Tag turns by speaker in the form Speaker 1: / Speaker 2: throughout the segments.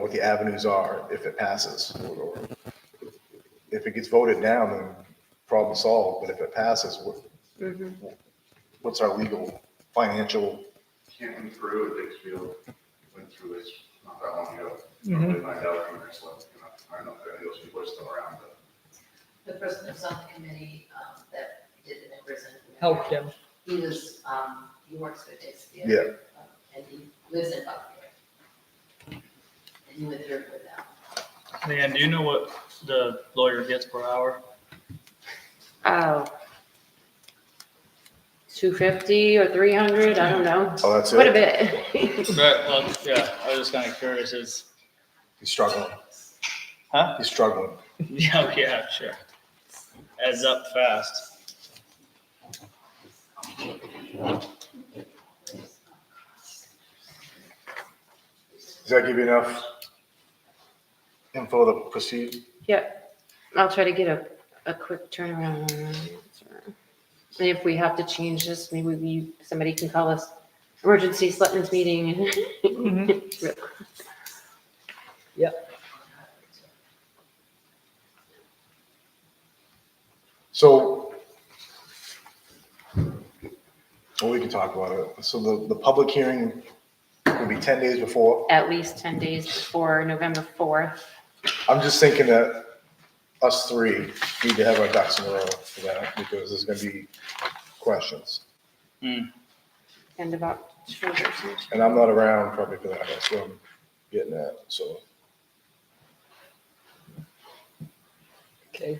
Speaker 1: what the avenues are if it passes. If it gets voted down, then problem solved, but if it passes,
Speaker 2: Mm-hmm.
Speaker 1: what, what's our legal, financial?
Speaker 3: Canton Peru at Dixfield went through this not that long ago. Probably find out if it's left, you know, I don't know if any of those people are still around, but
Speaker 4: The person that was on the committee, um, that did it in prison.
Speaker 5: help him.
Speaker 4: He was, um, he works for Dixie.
Speaker 1: Yeah.
Speaker 4: And he lives in Buckeye. And he went through it with them.
Speaker 6: Man, do you know what the lawyer gets per hour?
Speaker 2: Oh. 250 or 300, I don't know.
Speaker 1: Oh, that's
Speaker 2: Quite a
Speaker 1: it.
Speaker 2: bit.
Speaker 6: Right, well, uh, yeah, I was just kind of curious, is,
Speaker 1: He's struggling.
Speaker 6: Huh?
Speaker 1: He's struggling.
Speaker 6: yeah, oh, yeah, sure. Adds up fast.
Speaker 1: Does that give you enough info to proceed?
Speaker 2: I'll try to get a, a quick turnaround. on that. And if we have to change this, maybe we, somebody can call us emergency selectmen's meeting.
Speaker 1: So, well, we can talk about it. So the, the public hearing will be 10 days before.
Speaker 2: At least 10 days before November 4th.
Speaker 1: I'm just thinking that us three need to have our ducks in a row for that because there's going to be questions.
Speaker 2: end of October.
Speaker 1: And I'm not around probably for that. That's what I'm getting at. So
Speaker 5: Okay.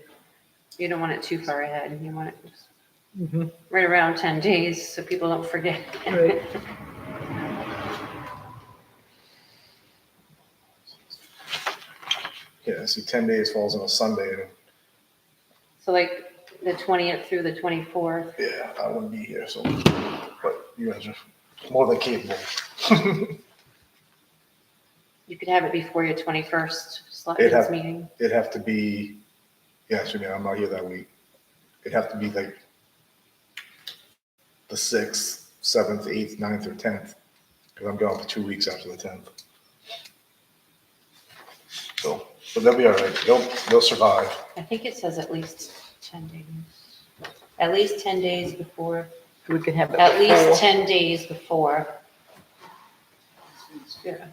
Speaker 2: You don't want it too far ahead. You want it just
Speaker 1: Mm-hmm.
Speaker 5: Mhm.
Speaker 2: right around 10 days so people don't forget.
Speaker 5: Right.
Speaker 1: yeah, see, 10 days falls on a Sunday. and
Speaker 2: So like the 20th through the 24th.
Speaker 1: Yeah, I wouldn't be here. So, but you guys are more than capable.
Speaker 2: You could have it before your 21st
Speaker 1: It'd have-
Speaker 2: selectmen's meeting.
Speaker 1: It'd have to be, yeah, actually, man, I'm not here that week. It'd have to be like the sixth, seventh, eighth, ninth, or tenth, because I'm gone for two weeks after the tenth. So, but they'll be all right. They'll, they'll survive.
Speaker 2: I think it says at least 10 days. At least 10 days before,
Speaker 5: We can have it.
Speaker 2: at
Speaker 5: before.
Speaker 2: least 10 days before. Yeah.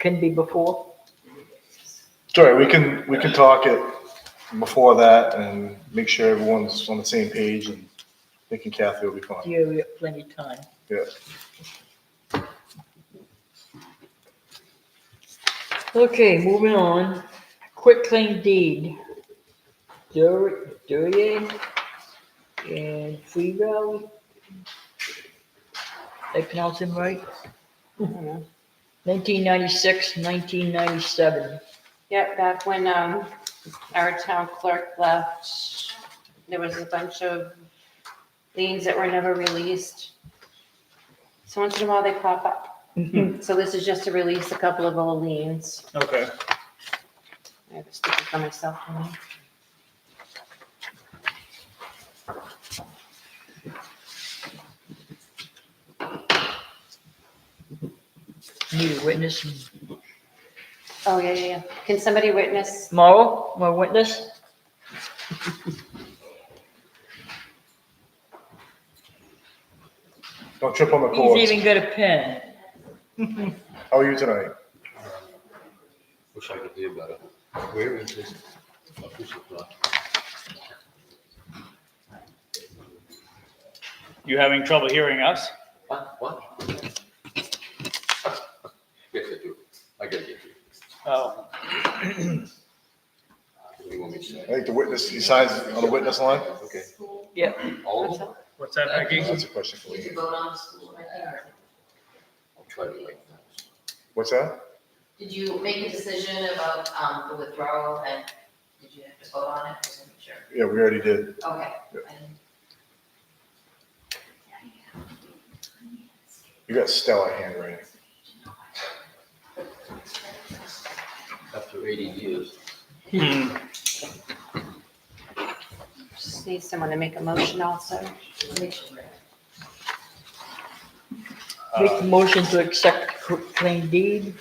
Speaker 5: Can be before.
Speaker 1: Sure, we can, we can talk it before that and make sure everyone's on the same page and thinking Kathy will be fine.
Speaker 5: Yeah, we have plenty of time.
Speaker 1: Yeah.
Speaker 5: Okay, moving on. Quick claim deed. Dur- Duryea and Free Valley. Did I pronounce them right?
Speaker 2: I don't know.
Speaker 5: 1996, 1997.
Speaker 2: Yep, back when, um, our town clerk left, there was a bunch of liens that were never released. So once in a while they pop up. So this is just to release a couple of old liens.
Speaker 6: Okay.
Speaker 2: I have a sticker for myself. on it.
Speaker 5: Need a witness.
Speaker 2: Oh, yeah, yeah, yeah. Can somebody witness?
Speaker 5: Morrow, my witness?
Speaker 1: Don't trip on the
Speaker 5: He's
Speaker 1: cords.
Speaker 5: even got a pen.
Speaker 1: How are you tonight?
Speaker 7: Wish I could be a better. Where is this official document?
Speaker 6: You having trouble hearing us?
Speaker 7: What, what? Yes, I do. I gotta get you.
Speaker 6: Oh,
Speaker 7: What do you want me to
Speaker 1: I
Speaker 7: say?
Speaker 1: think the witness, he signs on the witness line?
Speaker 7: Okay.
Speaker 5: Yep.
Speaker 7: All of them?
Speaker 6: what's that, Becky?
Speaker 1: That's a question for
Speaker 4: Did you
Speaker 1: you.
Speaker 4: vote on the school right there?
Speaker 7: I'll try to write that.
Speaker 1: What's that?
Speaker 4: Did you make a decision about, um, the withdrawal and did you have to vote on it? Just making sure.
Speaker 1: Yeah, we already did.
Speaker 4: Okay.
Speaker 1: You got stellar handwriting.
Speaker 7: After eighty years,
Speaker 6: Hmm,
Speaker 2: Just need someone to make a motion also.
Speaker 4: I make sure.
Speaker 5: Make the
Speaker 6: uh,
Speaker 5: motion to accept the quick claim deed.